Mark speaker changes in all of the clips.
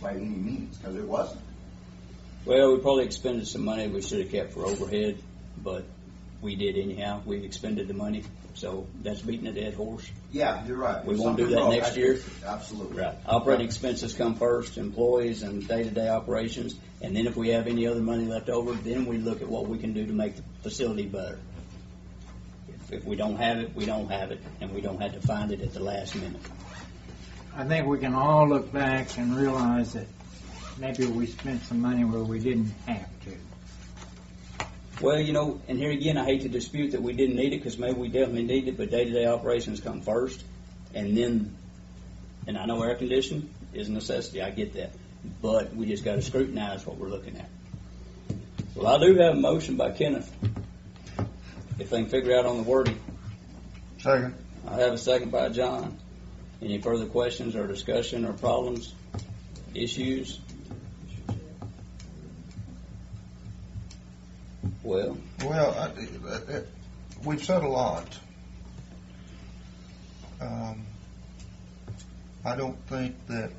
Speaker 1: by any means, because it wasn't.
Speaker 2: Well, we probably expended some money we should have kept for overhead, but we did anyhow. We expended the money, so that's beating a dead horse.
Speaker 1: Yeah, you're right.
Speaker 2: We won't do
Speaker 1: Something
Speaker 2: that
Speaker 1: wrong.
Speaker 2: next
Speaker 1: I-
Speaker 2: year?
Speaker 1: Absolutely.
Speaker 2: Operating expenses come first, employees and day-to-day operations, and then if we have any other money left over, then we look at what we can do to make the facility better. If- If we don't have it, we don't have it, and we don't have to find it at the last minute.
Speaker 3: I think we can all look back and realize that maybe we spent some money where we didn't have to.
Speaker 2: Well, you know, and here again, I hate to dispute that we didn't need it, because maybe we definitely need it, but day-to-day operations come first, and then, and I know air conditioning is a necessity, I get that, but we just gotta scrutinize what we're looking at. Well, I do have a motion by Kenneth, if they can figure out on the wording.
Speaker 4: Second.
Speaker 2: I have a second by John. Any further questions or discussion or problems, issues? Well,
Speaker 4: Well, I- I- I- we've said a lot. Um, I don't think that,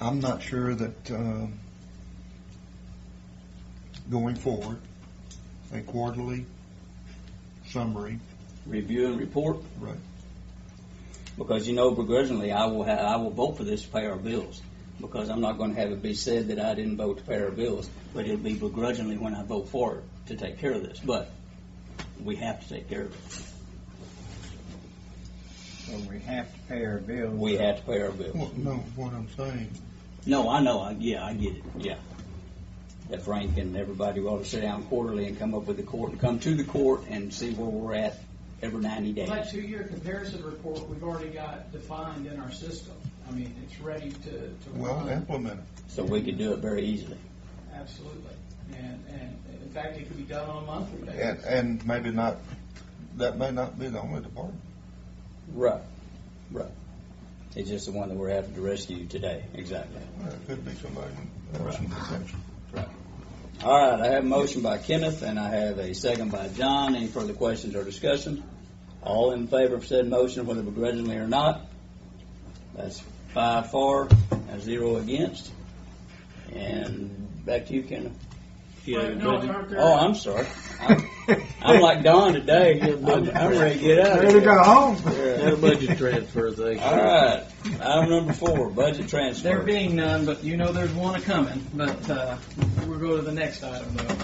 Speaker 4: I'm not sure that um, going forward, a quarterly summary,
Speaker 2: review and report,
Speaker 4: right,
Speaker 2: because you know begrudgingly, I will, ha- I will vote for this to pay our bills, because I'm not gonna have it be said that I didn't vote to pay our bills, but it'll be begrudgingly when I vote for it to take care of this, but we have to take care of it.
Speaker 3: So we have to pay our bills.
Speaker 2: We have to pay our bills.
Speaker 4: well, no, what I'm saying,
Speaker 2: No, I know, I, yeah, I get it, yeah. That Frank and everybody ought to sit down quarterly and come up with the court, and come to the court and see where we're at every ninety days.
Speaker 5: That two-year comparison report, we've already got defined in our system. I mean, it's ready to, to
Speaker 4: well,
Speaker 5: run.
Speaker 4: implement it.
Speaker 2: So we could do it very easily.
Speaker 5: Absolutely. And, and in fact, it could be done on a monthly
Speaker 4: And,
Speaker 5: basis.
Speaker 4: and maybe not, that may not be the only department.
Speaker 2: Right, right. It's just the one that we're having to rescue today, exactly.
Speaker 4: It could be somebody, with some potential.
Speaker 2: All right, I have a motion by Kenneth, and I have a second by John. Any further questions or discussion? All in favor of said motion, whether begrudgingly or not? That's five for and zero against. And back to you, Kenneth.
Speaker 5: Right, no, aren't there-
Speaker 2: Oh, I'm sorry. I'm, I'm like Don today. I'm, I'm ready to get out of
Speaker 3: Ready to go
Speaker 2: here.
Speaker 3: home?
Speaker 2: Yeah.
Speaker 6: No budget transfer thing.
Speaker 2: All right, item number four, budget transfer.
Speaker 5: There being none, but you know there's one a-coming, but, uh, we'll go to the next item though.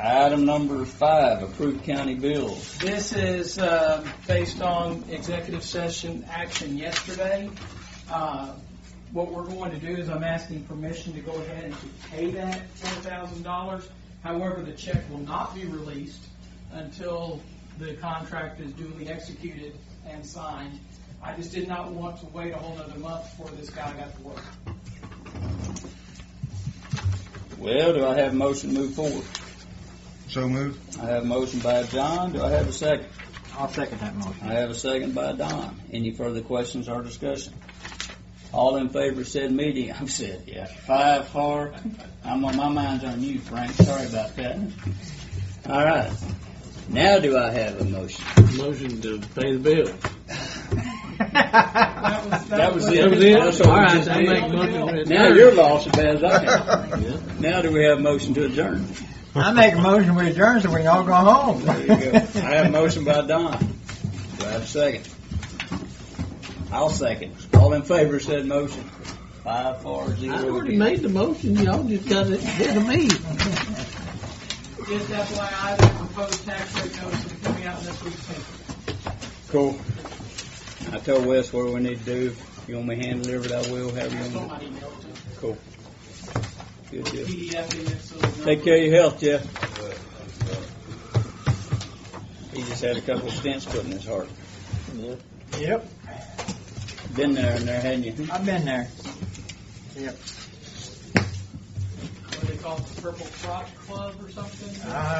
Speaker 2: Item number five, approved county bills.
Speaker 5: This is uh, based on executive session action yesterday. Uh, What we're going to do is I'm asking permission to go ahead and to pay that $4,000. However, the check will not be released until the contract is duly executed and signed. I just did not want to wait a whole nother month before this guy got to work.
Speaker 2: Well, do I have a motion to move forward?
Speaker 4: So moved.
Speaker 2: I have a motion by John, do I have a second?
Speaker 3: I'll second that motion.
Speaker 2: I have a second by Don. Any further questions or discussion? All in favor said meeting, I'm said, yeah, five, four, I'm on, my mind's on you, Frank, sorry about that. All right, now do I have a motion?
Speaker 6: Motion to pay the bill.
Speaker 2: That was
Speaker 6: That was
Speaker 2: it.
Speaker 6: it?
Speaker 2: That's
Speaker 6: All
Speaker 2: what we
Speaker 6: right,
Speaker 2: just
Speaker 6: I
Speaker 2: did.
Speaker 6: make motion. to
Speaker 2: Now you're lost as bad as I
Speaker 6: Yeah.
Speaker 2: am. Now do we have a motion to adjourn?
Speaker 3: I make a motion we adjourn so we can all go home.
Speaker 2: There you go. I have a motion by Don. Do I have a second? I'll second. All in favor said motion. Five, four, zero.
Speaker 6: I already
Speaker 2: against.
Speaker 6: made the motion, y'all just got it ahead of me.
Speaker 5: Just FYI, the proposed tax rate notice is coming out in this week's paper.
Speaker 2: Cool. I told Wes what we need to do. If You want me to hand delivered, I will, however you want.
Speaker 5: Somebody emailed it.
Speaker 2: to do it. Good deal.
Speaker 5: PDF in it, so the number-
Speaker 2: Take care of your health, Jeff. He just had a couple of stents put in his heart.
Speaker 3: Yep.
Speaker 2: Been there and there, hadn't you?
Speaker 3: I've been there.
Speaker 5: what they call it, the Purple Frog Club or something.
Speaker 3: I